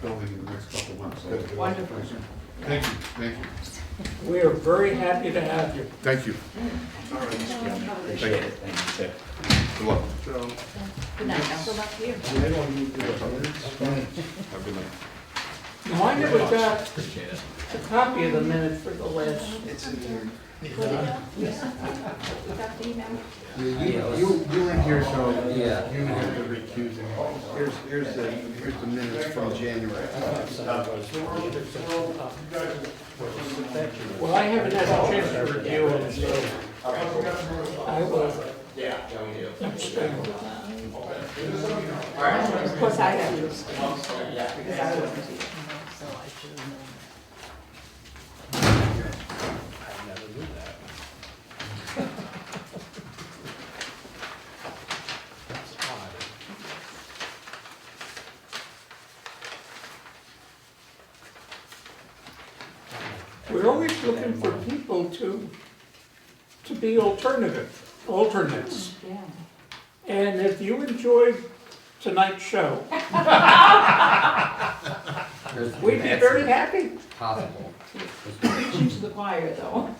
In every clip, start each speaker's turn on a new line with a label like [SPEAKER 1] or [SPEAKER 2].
[SPEAKER 1] building in the next couple of months. That's good.
[SPEAKER 2] Wonderful.
[SPEAKER 1] Thank you, thank you,
[SPEAKER 3] We are very happy to have you.
[SPEAKER 1] thank you.
[SPEAKER 4] Appreciate it, thank you, too.
[SPEAKER 1] Good luck.
[SPEAKER 2] Good night, now. Good luck to you.
[SPEAKER 1] Have a good night.
[SPEAKER 3] Now, I never got
[SPEAKER 4] Appreciate it.
[SPEAKER 3] a copy of the minutes for the last.
[SPEAKER 2] We got the email.
[SPEAKER 5] You, you you weren't here, so you would have to recuse anyway. Here's, here's the, here's the minutes from January.
[SPEAKER 3] Well, I haven't had a chance to review it, so I will.
[SPEAKER 2] Of course, I have to abstain. Because I wasn't here.
[SPEAKER 3] We're always looking for people to, to be alternative, alternates.
[SPEAKER 2] Yeah.
[SPEAKER 3] And if you enjoyed tonight's show, we'd be very happy.
[SPEAKER 5] Possible.
[SPEAKER 2] Preaching to the choir, though.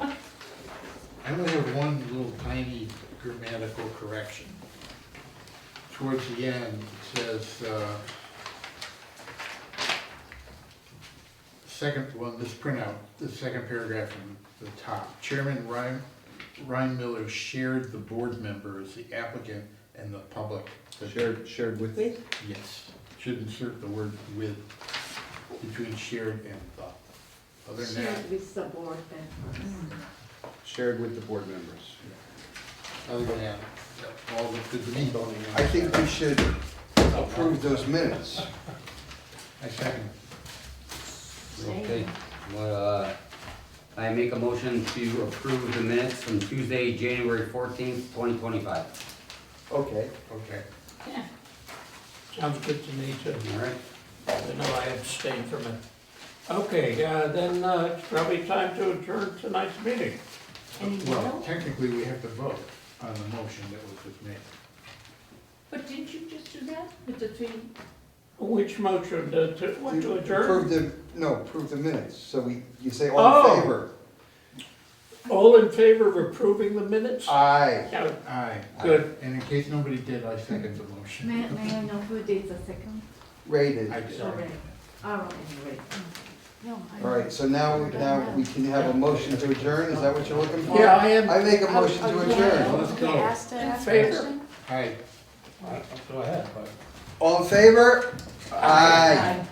[SPEAKER 5] I only have one little tiny grammatical correction. Towards the end, it says, uh, second one, this printout, the second paragraph from the top. Chairman Ryan, Ryan Miller shared the board members, the applicant, and the public.
[SPEAKER 6] Shared, shared with me?
[SPEAKER 5] Yes, should insert the word with, between shared and the. Other than that,
[SPEAKER 7] With the board then.
[SPEAKER 6] Shared with the board members.
[SPEAKER 5] other than that, all the, the meat boning.
[SPEAKER 6] I think we should approve those minutes.
[SPEAKER 5] I second.
[SPEAKER 8] Okay, well, uh, I make a motion to approve the minutes from Tuesday, January fourteenth, twenty twenty-five.
[SPEAKER 6] Okay.
[SPEAKER 5] Okay.
[SPEAKER 3] Sounds good to me too.
[SPEAKER 8] All right?
[SPEAKER 3] I know I abstain from it. Okay, uh, then uh, it's probably time to adjourn tonight's meeting.
[SPEAKER 2] Any
[SPEAKER 5] Well,
[SPEAKER 2] email?
[SPEAKER 5] technically, we have to vote on the motion that was just made.
[SPEAKER 2] But didn't you just do that with the three?
[SPEAKER 3] Which motion to, to- what to adjourn?
[SPEAKER 6] Approve the, no, approve the minutes, so we, you say all
[SPEAKER 3] Oh.
[SPEAKER 6] in favor?
[SPEAKER 3] All in favor of approving the minutes?
[SPEAKER 6] Aye.
[SPEAKER 3] Yeah,
[SPEAKER 5] Aye.
[SPEAKER 3] Good.
[SPEAKER 5] And in case nobody did, I second the motion.
[SPEAKER 7] May, may I know who did the second?
[SPEAKER 6] Rated.
[SPEAKER 5] I did.
[SPEAKER 7] Sorry. Oh, anyway. No, I.
[SPEAKER 6] All right, so now, we- now we can have a motion to adjourn, is that what you're looking for?
[SPEAKER 3] Yeah, I am
[SPEAKER 6] I make a motion to adjourn.
[SPEAKER 5] Let's go.
[SPEAKER 3] in favor.
[SPEAKER 5] Aye.
[SPEAKER 4] Go ahead, but.
[SPEAKER 6] All in favor? Aye.
[SPEAKER 2] Aye.